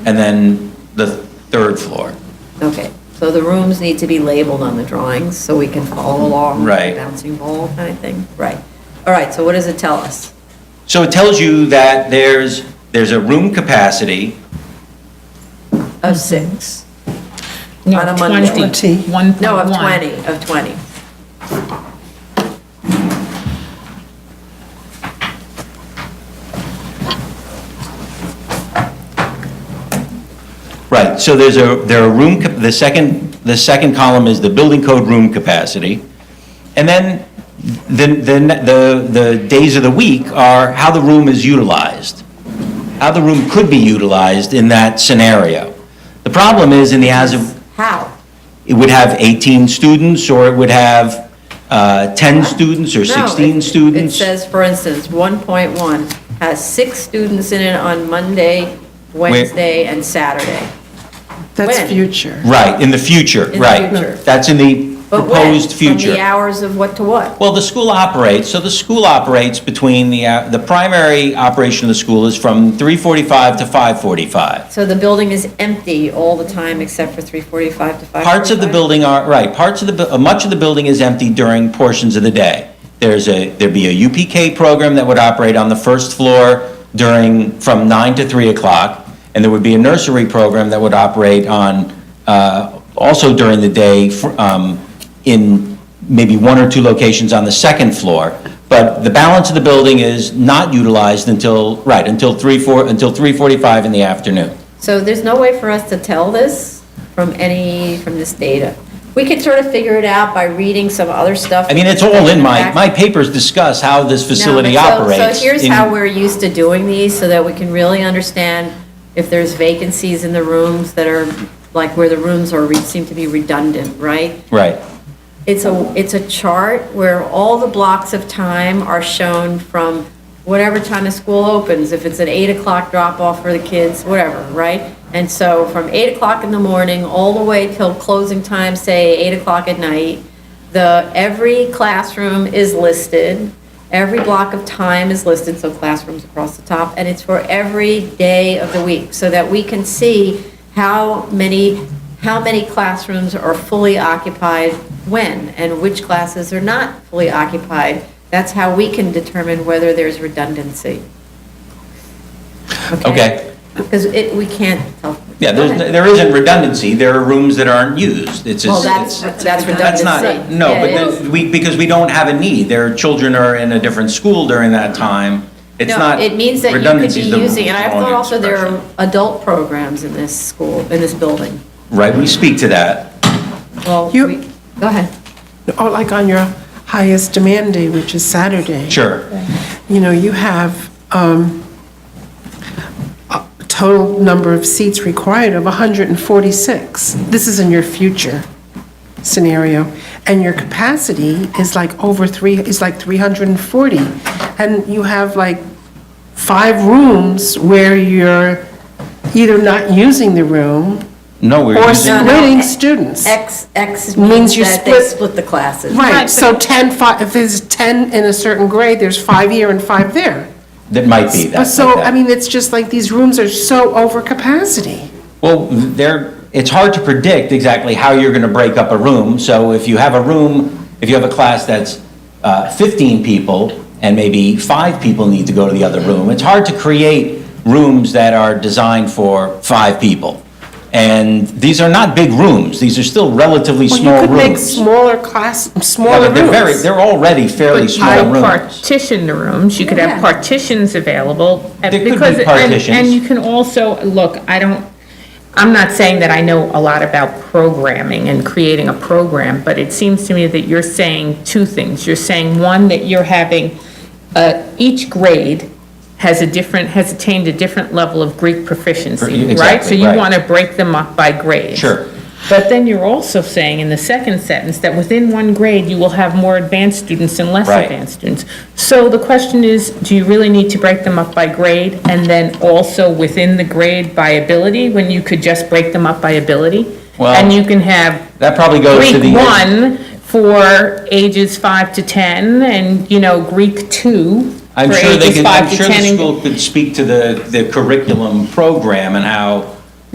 and then the third floor. Okay, so the rooms need to be labeled on the drawings so we can follow along. with the Right. Bouncing ball kind of thing, right. All right, so what does it tell us? So it tells you that there's, there's a room capacity, Of six? No, On a Monday. 20, 1.1. No, of 20, of 20. right, so there's a, there are room, cap- the second, the second column is the building code room capacity. And then, then, then the, the days of the week are how the room is utilized, how the room could be utilized in that scenario. The problem is in the as of, How? it would have 18 students, or it would have uh, 10 students, or No, 16 it- students. It says, for instance, 1.1 has six students in it on Monday, Wednesday, and Saturday. When? That's future. Right, in the future, the right. future. That's in the But when? proposed From the future. hours of what to what? Well, the school operates, so the school operates between the, uh, the primary operation of the school is from 3:45 to 5:45. So the building is empty all the time except for 3:45 to 5:45? Parts of the building are, right, parts of the, bu- uh, much of the building is empty during portions of the day. There's a, there'd be a UPK program that would operate on the first floor during, from 9 to 3 o'clock, and there would be a nursery program that would operate on, uh, also during the day, fr- um, in maybe one or two locations on the second floor, but the balance of the building is not utilized until, right, until 3, 4, until 3:45 in the afternoon. So there's no way for us to tell this from any, from this data. We could sort of figure it out by reading some other stuff. I mean, it's all in my, my papers discuss how this No, facility but so- operates. So here's in- how we're used to doing these, so that we can really understand if there's vacancies in the rooms that are, like where the rooms are, re- seem to be redundant, right? Right, It's a, it's a chart where all the blocks of time are shown from whatever time the school opens, if it's an 8 o'clock drop-off for the kids, whatever, right? And so from 8 o'clock in the morning, all the way till closing time, say 8 o'clock at night, the, every classroom is listed, every block of time is listed, so classrooms across the top, and it's for every day of the week, so that we can see how many, how many classrooms are fully occupied when, and which classes are not fully occupied. That's how we can determine whether there's redundancy. okay. Because it, we can't tell. Yeah, there's, Go ahead. there isn't redundancy, there are rooms that aren't used, it's just. Well, that's, it's- that's That's redundancy. not, no, Yeah, but it is. then, we, because we don't have a need, their children are in a different school during that time, it's Mm-hmm. No, not. It means that you could redundancy be is the using, and I wrong thought also there expression. are adult programs in this school, in this building. Right, we speak to that, Well, You- we, go ahead. Or like on your highest demand day, which is Saturday. sure, You know, you have um, a total number of seats required of 146. This is in your future scenario. And your capacity is like over three, is like 340. And you have like five rooms where you're either not using the room no, we're or using, not- splitting students. X, X means Means you that they split- split the classes. Right, so 10, fi- if there's 10 in a certain grade, there's five here and five there. that might be that. So, like that. I mean, it's just like these rooms are so over capacity. Well, there, it's hard to predict exactly how you're going to break up a room. So if you have a room, if you have a class that's uh, 15 people and maybe five people need to go to the other room, it's hard to create rooms that are designed for five people. And these are not big rooms. These are still relatively Well, small you could make rooms. smaller class, Yeah, smaller but They're very, rooms. they're already fairly But small you could rooms. Partition the rooms, you could have partitions available. and There could be because- and- partitions. And you can also, look, I don't, I'm not saying that I know a lot about programming and creating a program, but it seems to me that you're saying two things. You're saying, one, that you're having, uh, each grade has a different, has attained a different level of Greek proficiency, right? So e, Exactly, you right. want to break them up by grade. Sure. But then you're also saying in the second sentence that within one grade, you will have more advanced students and less Right. advanced students. So the question is, do you really need to break them up by grade and then also within the grade by ability, when you could just break them up by ability? Well, And you can have That probably goes to the. Greek one for ages five to 10 and, you know, Greek two I'm for sure they ages can, I'm five to sure the 10. and- school could speak to the, the curriculum program and how